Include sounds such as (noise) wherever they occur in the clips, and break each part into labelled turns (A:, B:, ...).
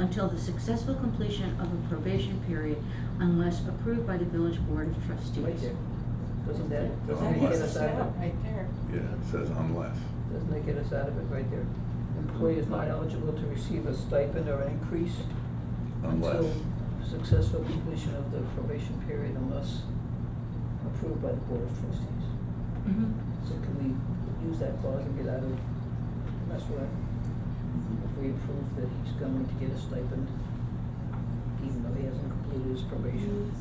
A: until the successful completion of a probation period unless approved by the village board of trustees.
B: Right there. Doesn't that,
C: That's
B: doesn't that
C: unless.
B: get us out of it?
D: Right there.
C: Yeah, it says unless.
B: Doesn't that get us out of it right there? Employee is not eligible to receive a stipend or an increase
C: Unless.
B: until successful completion of the probation period unless approved by the board of trustees.
A: Mhm.
E: Mm-hmm.
B: So can we use that clause and get out of mess with it? If we approve that he's going to get a stipend, even though he hasn't completed his probation?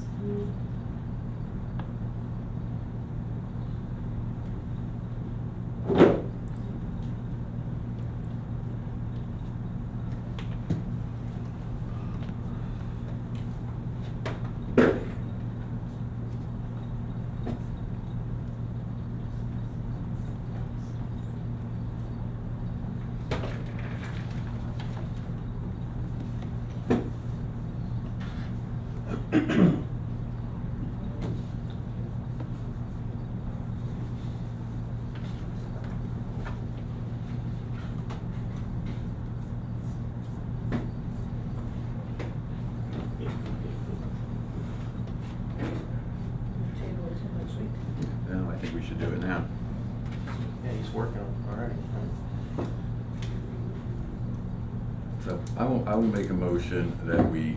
B: Table it till next week.
C: No, I think we should do it now.
E: Yeah, he's working on it already.
C: So I will, I will make a motion that we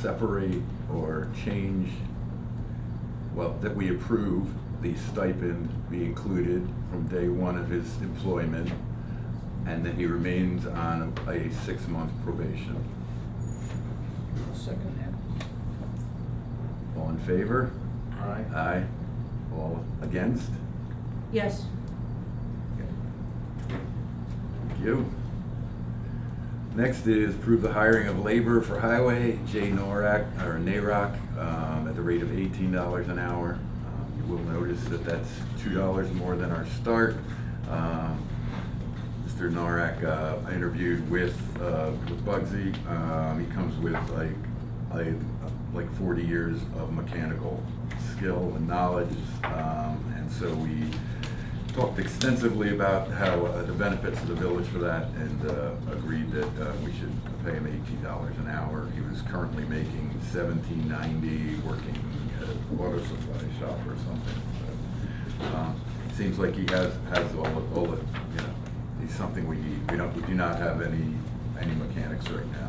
C: separate or change, well, that we approve the stipend be included from day one of his employment and that he remains on a six-month probation.
B: I'll Second that.
C: All in favor?
E: All right.
C: Aye. All against?
A: Yes,
C: Thank you. Next is approve the hiring of labor for highway, Jay Norak, or Narock, um, at the rate of eighteen dollars an hour. Um, You will notice that that's two dollars more than our start. Um, Mr. Norak, uh, I interviewed with, uh, with Bugsy, um, he comes with like, like, like forty years of mechanical skill and knowledge, um, and so we talked extensively about how, uh, the benefits of the village for that, and, uh, agreed that, uh, we should pay him eighteen dollars an hour. He was currently making seventeen ninety, working at a water supply shop or something, so, um, Seems like he has, has all the, all the, you know, it's something we need, we don't, we do not have any, any mechanics right now.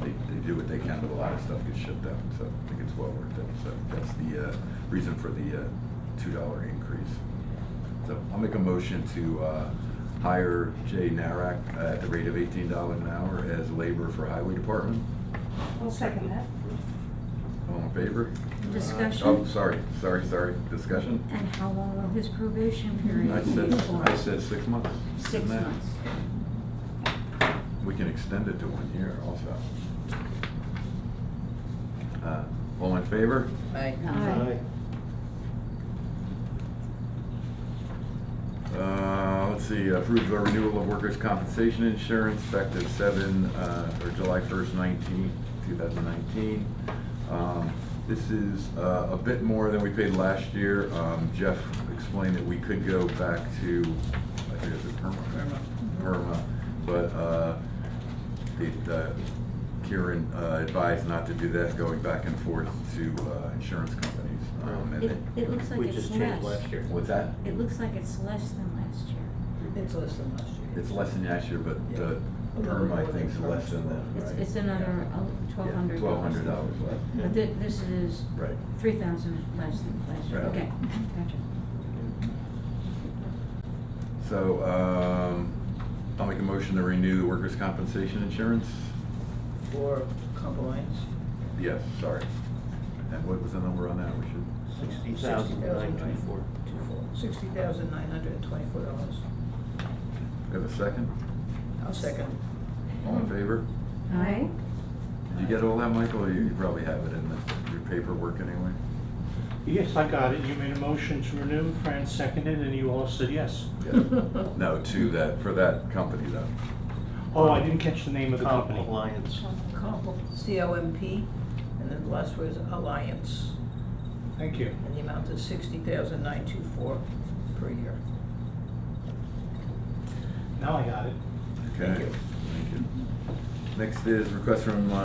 C: They, they do what they can, but a lot of stuff gets shipped out, so I think it's well worth it, so that's the, uh, reason for the, uh, two dollar increase. So I'll make a motion to, uh, hire Jay Narak at the rate of eighteen dollars an hour as labor for highway department.
D: I'll second that.
C: All in favor? Oh,
A: discussion,
C: sorry, sorry, sorry, discussion?
A: and how long will his probation
C: I
A: period
C: said,
A: be for?
C: I said six months.
A: Six
C: Nah.
A: months.
C: We can extend it to one year also. Uh, All in favor?
B: Aye.
A: Aye.
C: Uh, Let's see, approve the renewal of workers' compensation insurance effective seven, uh, or July first nineteen, two thousand nineteen. Um, This is uh, a bit more than we paid last year. Um, Jeff explained that we could go back to, I think it's a PERMA, PERMA, but uh, the, uh, Kieran uh, advised not to do that, going back and forth to uh, insurance companies. Um, and
A: It,
C: they-
A: it looks like
E: We
A: it's
E: just changed
A: less.
E: last year.
C: What's that?
A: It looks like it's less than last year.
B: It's less than last year.
C: It's less than last year, but
B: Yeah.
C: the perm, I think, is less than that,
A: It's,
C: right?
A: it's another uh, twelve hundred.
C: Twelve hundred dollars left,
A: But thi- this is
B: uh,
C: right.
A: three thousand less than last year,
C: Right.
A: okay, gotcha.
C: So, um, I'll make a motion to renew the workers' compensation insurance?
B: For compliance,
C: Yes, sorry. And what was the number on that? We should,
E: Sixty thousand nine twenty-four.
B: two four, sixty thousand nine hundred and twenty-four dollars.
C: we have a second?
B: I'll second.
C: All in favor?
A: Aye?
C: Did you get all that, Michael? You you probably have it in the- your paperwork anyway?
F: Yes, I got it. You made a motion to renew, Fran seconded, and you all said yes.
C: Yeah.
B: (laughs)
C: No, to that, for that company though.
F: Oh, I didn't catch the name of the company.
E: Alliance.
B: Comp, C O M P, and then the last word is alliance,
F: Thank you.
B: and the amount is sixty thousand nine two four per year.
F: Now I got it.
C: Okay.
B: Thank you.
C: Thank you. Next is request from uh,